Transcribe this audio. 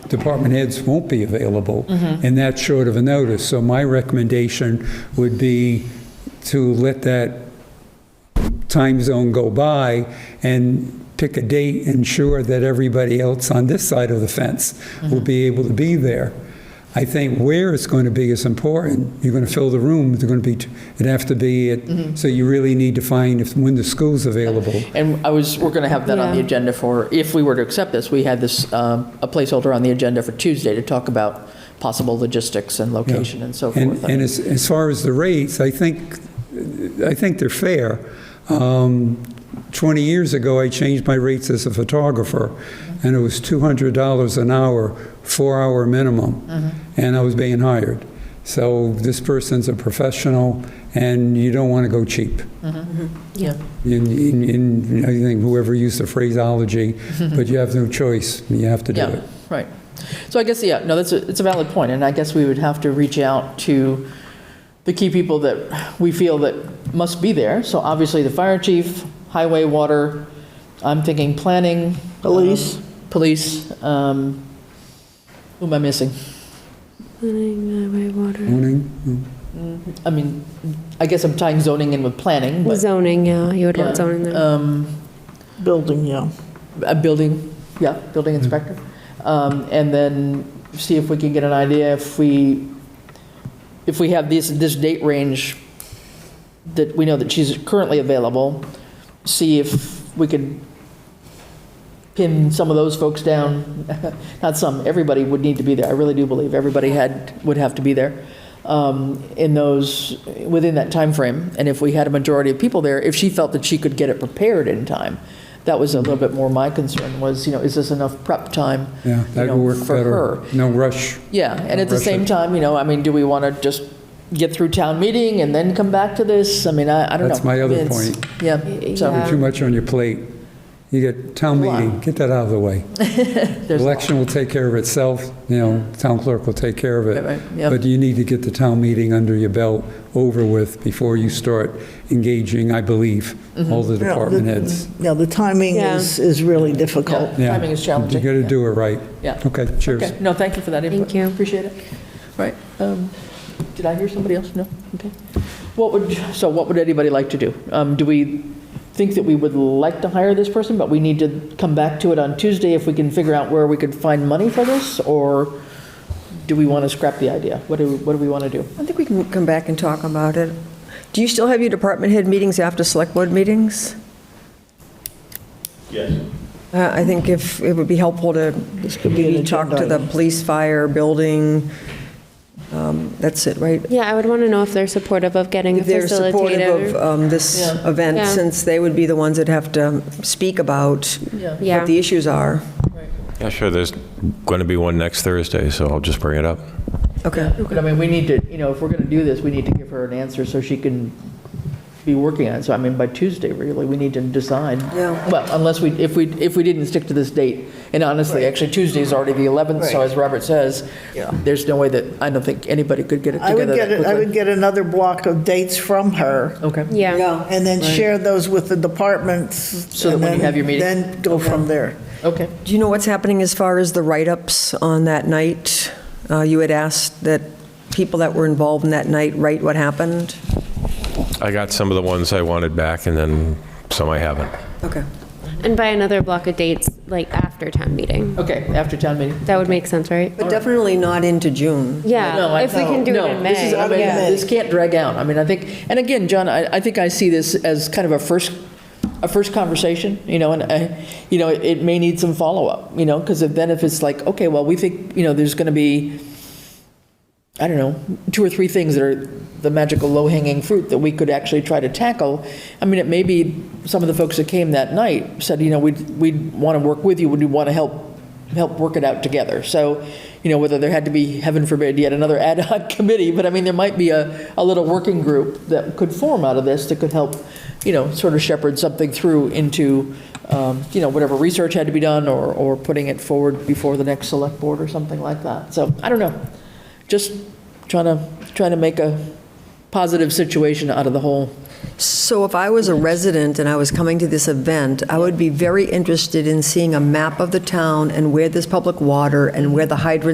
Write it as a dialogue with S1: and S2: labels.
S1: department heads won't be available, and that's short of a notice. So my recommendation would be to let that time zone go by and pick a date, ensure that everybody else on this side of the fence will be able to be there. I think where it's going to be is important. You're going to fill the room, they're going to be, it'd have to be, at- so you really need to find if, when the school's available.
S2: And I was, we're going to have that on the
S3: Yeah.
S2: agenda for, if we were to accept this, we had this, um, a placeholder on the agenda for Tuesday to talk about possible logistics and location and so
S1: And,
S2: forth.
S1: and as, as far as the rates, I think, I think they're fair. Um, 20 years ago, I changed my rates as a photographer, and it was $200 an hour, four-hour minimum,
S2: Mm-hmm.
S1: and I was being hired. So this person's a professional, and you don't want to go cheap.
S2: Mm-hmm. Yeah.
S1: In, in- in, I think whoever used the phraseology, but you have no choice, you have to do
S2: Mm-hmm. Yeah,
S1: it.
S2: right. So I guess, yeah, no, that's, a- it's a valid point, and I guess we would have to reach out to the key people that we feel that must be there. So obviously, the fire chief, highway, water, I'm thinking planning. Police. Police. um, Who am I missing?
S3: Running highway, water.
S1: Morning?
S2: I mean, I guess I'm tying zoning in with planning, but.
S3: Zoning, yeah, you would want zoning
S4: Uh,
S3: there.
S2: Um,
S5: Building, yeah.
S2: A building, yeah, building inspector. Um, And then see if we can get an idea if we, if we have this, this date range that we know that she's currently available, see if we could pin some of those folks down. Not some, everybody would need to be there. I really do believe everybody had, would have to be there um, in those, within that time frame. And if we had a majority of people there, if she felt that she could get it prepared in time, that was a little bit more my concern was, you know, is this enough prep time?
S1: Yeah,
S2: you
S1: that
S2: know,
S1: would work
S2: for her?
S1: better. No rush.
S2: Yeah, and at the
S1: Rush
S2: same
S1: it.
S2: time, you know, I mean, do we want to just get through town meeting and then come back to this? I mean, I, I don't know.
S1: That's my other
S2: It's-
S1: point.
S2: Yeah,
S3: Yeah.
S2: so
S1: Too much on your plate. You get town
S2: Wow.
S1: meeting, get that out of the way.
S2: there's,
S1: Election will take care of itself, you know, town clerk will take care of
S2: Right, right,
S1: it.
S2: yep.
S1: But you need to get the town meeting under your belt, over with, before you start engaging, I believe, all
S2: Mm-hmm.
S1: the department heads.
S5: Yeah, the timing
S3: Yeah.
S5: is, is really difficult.
S2: yeah,
S1: Yeah.
S2: timing is challenging.
S1: You got to
S2: yeah.
S1: do it right.
S2: Yeah.
S1: Okay, cheers.
S2: Okay, no, thank you for that input.
S3: Thank you.
S2: Appreciate it. Right, um, did I hear somebody else? No? Okay. What would, so what would anybody like to do? Um, Do we think that we would like to hire this person, but we need to come back to it on Tuesday if we can figure out where we could find money for this? Or do we want to scrap the idea? What do, what do we want to do?
S4: I think we can come back and talk about it. Do you still have your department head meetings after select board meetings?
S6: Yes.
S4: Uh, I think if, it would be helpful to
S5: could be an
S4: maybe talk to
S5: agenda
S4: the
S5: item.
S4: police, fire, building. Um, That's it, right?
S3: Yeah, I would want to know if they're supportive of getting a
S4: If they're supportive of
S3: facilitator.
S4: um, this
S2: Yeah.
S4: event,
S3: Yeah.
S4: since they would be the ones that have to speak about
S3: Yeah.
S4: what the issues are.
S7: Yeah, sure, there's going to be one next Thursday, so I'll just bring it up.
S4: Okay.
S2: But I mean, we need to, you know, if we're going to do this, we need to give her an answer so she can be working on it. So I mean, by Tuesday, really, we need to decide.
S4: Yeah.
S2: Well, unless we, if we, if we didn't stick to this date, and honestly, actually, Tuesday is already the 11th, so
S5: Right.
S2: as Robert says, there's no way that, I don't think anybody could get it
S5: I would
S2: together that
S5: get,
S2: quickly.
S5: I would get another block of dates from her,
S2: Okay.
S3: Yeah,
S5: and then share those with the departments. So
S2: that when you have your meeting.
S5: Then go from there.
S2: Okay.
S4: Do you know what's happening as far as the write-ups on that night? Uh, You had asked that people that were involved in that night write what happened?
S7: I got some of the ones I wanted back, and then some I haven't.
S4: Okay.
S3: and by another block of dates, like after town meeting.
S2: Okay, after town meeting.
S3: That would make sense, right?
S4: But definitely not into June.
S2: No,
S3: Yeah,
S2: I-
S3: if we can do
S2: no,
S3: it in
S2: this is- I mean,
S3: May, yeah.
S2: This can't drag out. I mean, I think, and again, John, I, I think I see this as kind of a first, a first conversation, you know, and I, you know, it may need some follow-up, you know, because then if it's like, okay, well, we think, you know, there's going to be, I don't know, two or three things that are the magical low-hanging fruit that we could actually try to tackle. I mean, it may be some of the folks that came that night said, you know, we'd, we'd want to work with you, we'd want to help, help work it out together. So, you know, whether there had to be, heaven forbid, yet another ad hoc committee, but I mean, there might be a, a little working group that could form out of this that could help, you know, sort of shepherd something through into, um, you know, whatever research had to be done or, or putting it forward before the next select board or something like that. So, I don't know just trying to, trying to make a positive situation out of the whole
S4: So if I was a resident and I was coming to this event, I would be very interested in seeing a map of the town and where there's public water and where the hydrants